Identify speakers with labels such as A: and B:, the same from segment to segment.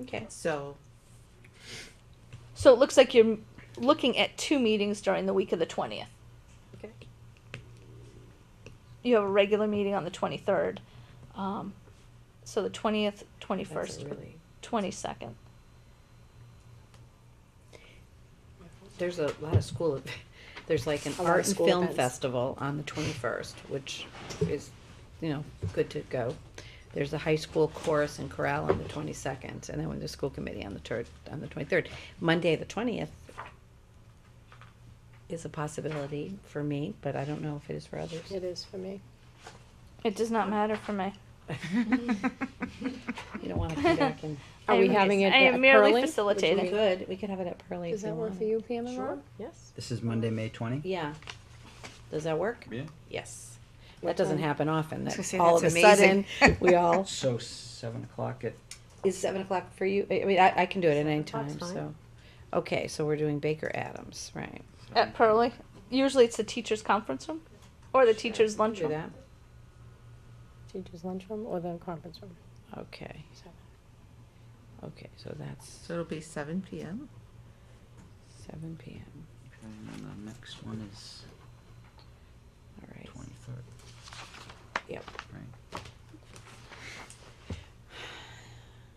A: Okay.
B: Um, So
C: So it looks like you're m- looking at two meetings during the week of the 20th.
A: Okay.
C: You have a regular meeting on the 23rd. Um, so the 20th, 21st,
A: That's a really.
C: 22nd.
A: There's a lot of school. ev- There's like an
D: A lot of
A: art and
D: school
A: film
D: events.
A: festival on the 21st, which is, you know, good to go. There's a high school chorus and chorale on the 22nd, and then with the school committee on the third, on the 23rd. Monday the 20th is a possibility for me, but I don't know if it is for others.
D: It is for me.
C: It does not matter for me.
A: You don't want to come back and.
D: Are we
C: I'm-
D: having it
C: I am
D: at
C: merely
D: Pearly?
A: We
C: facilitating.
A: could, we could have it at Pearly if
D: Is
A: you
D: that one
A: want.
D: for you, Pam and
B: Sure.
D: Rob?
B: yes,
E: This is Monday, May 20?
A: Yeah. Does that work?
E: Yeah.
B: yes.
A: That doesn't
D: time?
A: happen often,
F: I was gonna
A: that
F: say,
A: all of a
F: that's
A: sudden,
F: amazing.
A: we all,
E: So 7 o'clock at
A: is seven o'clock for you? I I mean, I, I can do it at any
B: Seven o'clock's
A: time,
B: fine.
A: so. Okay, so we're doing Baker Adams, right.
C: At Pearly. Usually it's the teacher's conference room or the teacher's
A: We'll Do
C: lunchroom.
A: that,
D: Teacher's lunchroom or the conference room?
A: okay,
D: Seven.
A: okay, so that's
B: So it'll be seven PM.
A: seven P M,
E: And then the next one is
A: all right.
E: 23rd,
A: Yep.
E: right?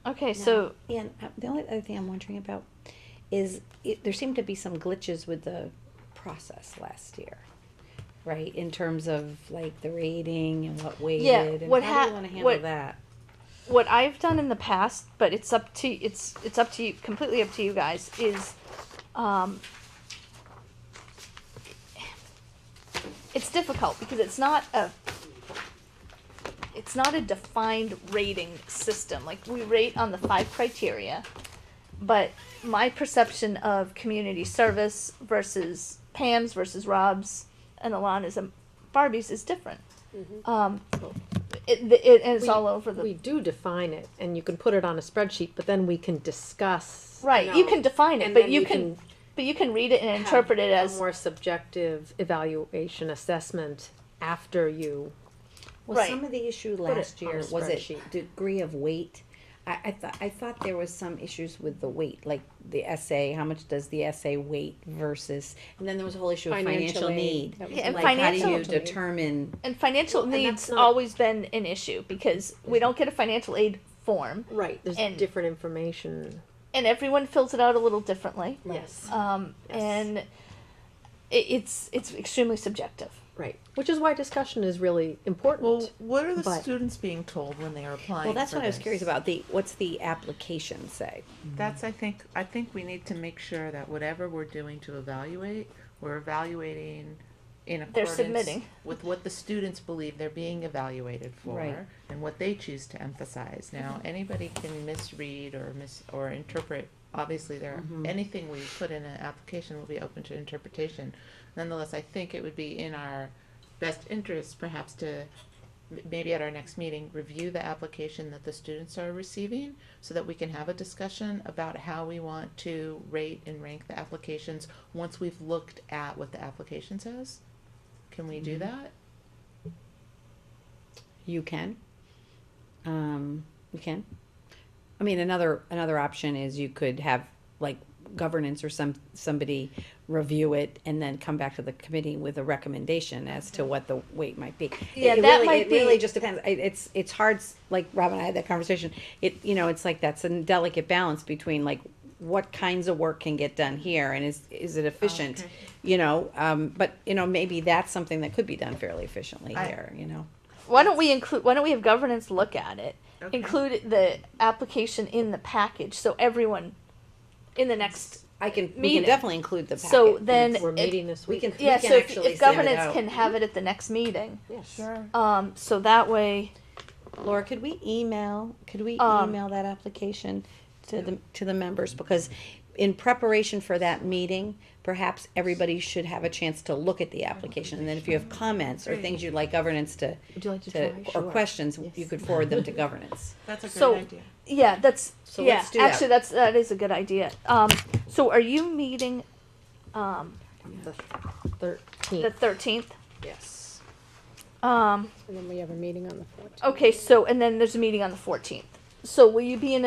C: Okay,
A: Now,
C: so
A: And uh, the only other thing I'm wondering about is, it, there seemed to be some glitches with the process last year, right? In terms of like the rating and what weighted, and how
C: what
A: do
C: hap-
A: you wanna handle
C: what-
A: that?
C: what I've done in the past, but it's up to it's it's up to you completely up to you guys is um it's difficult because it's not a it's not a defined rating system. Like we rate on the five criteria, but my perception of community service versus Pam's versus Rob's and Alana's and Barbie's is different. Um, it, it, and it's
D: Mm-hmm. We-
C: all over the
D: We do define it, and you can put it on a spreadsheet, but then we can discuss.
C: Right, you can define it,
D: And
C: but
D: then
C: you
D: we
C: can, but you can read it and interpret it
D: have a
C: as
D: More subjective evaluation assessment after you.
A: Well,
C: Right.
A: some of the issue
D: it
A: last
D: on a
A: year was it
D: spreadsheet.
A: degree of weight? I, I thought, I thought there was some issues with the weight, like the essay, how much does the essay weight versus, and then there was a whole issue of
D: Financial
A: financial
D: aid.
A: need.
D: That was
C: Yeah, and
A: Like, how do you
C: financial-
A: determine,
C: and financial
D: Well, and
C: needs
D: that's not-
C: always been an issue because we don't get a financial aid form
D: Right, there's
C: And-
D: different information.
C: and everyone fills it out a little differently.
D: Yes.
C: Um,
D: Yes.
C: and it, it's it's extremely subjective.
D: Right, which is why discussion is really important.
B: Well, what are the
D: But-
B: students being told when they are applying?
A: well, that's
B: for
A: what I was
B: this? Mm-hmm.
A: curious about, the, what's the application say?
B: That's I think I think we need to make sure that whatever we're doing to evaluate, we're evaluating in
C: They're
B: accordance
C: submitting.
B: with what the students believe they're being evaluated for
A: Right.
B: and what they choose to emphasize. Now, anybody can misread or mis or interpret obviously there anything we put in an application will be open to interpretation. Nonetheless, I think it would be in our best interest perhaps to m- maybe at our next meeting, review the application that the students are receiving so that we can have a discussion about how we want to rate and rank the applications once we've looked at what the application says. Can we do that?
A: You can. Um, you can. I mean, another another option is you could have like governance or some somebody review it and then come back to the committee with a recommendation as to what the weight might be.
C: Yeah,
A: It- it
C: that
A: really,
C: might
A: it really
C: be-
A: just depends. It, it's it's hard. s- Like Rob and I had that conversation. It you know it's like that's a delicate balance between like what kinds of work can get done here and is is it efficient,
C: Oh,
A: you know? Um, but you know maybe that's something that could be done fairly efficiently
B: I-
A: here. You know.
C: Why don't we include? Why don't we have governance look at it?
B: Okay.
C: Include the application in the package so everyone in the next.
A: I can, we
C: Meeting.
A: can definitely include the packet.
C: So then
D: We're
C: it-
D: meeting this
A: We
D: week.
A: can, we
C: Yeah,
A: can
C: so if,
A: actually
C: if
A: send it
C: governance
A: out.
C: can
D: Mm-hmm.
C: have it at the next meeting,
B: Sure.
C: um, so that way.
A: Laura, could we email, could we
C: Um,
A: email that application to the, to the members? Because in preparation for that meeting, perhaps everybody should have a chance to look at the application. And then if you have comments or things you'd like governance to,
D: Would you like to
A: to,
D: try?
A: or
D: Sure.
A: questions, you could forward them to governance.
B: That's a great
C: So-
B: idea.
C: Yeah, that's
A: So
C: yeah.
A: let's do that.
C: actually, that's that is a good idea. Um, so are you meeting, um, the
D: Thirteenth,
C: thirteenth?
D: yes.
C: Um,
D: And then we have a meeting on the fourteenth.
C: okay. So and then there's a meeting on the fourteenth. So will you be in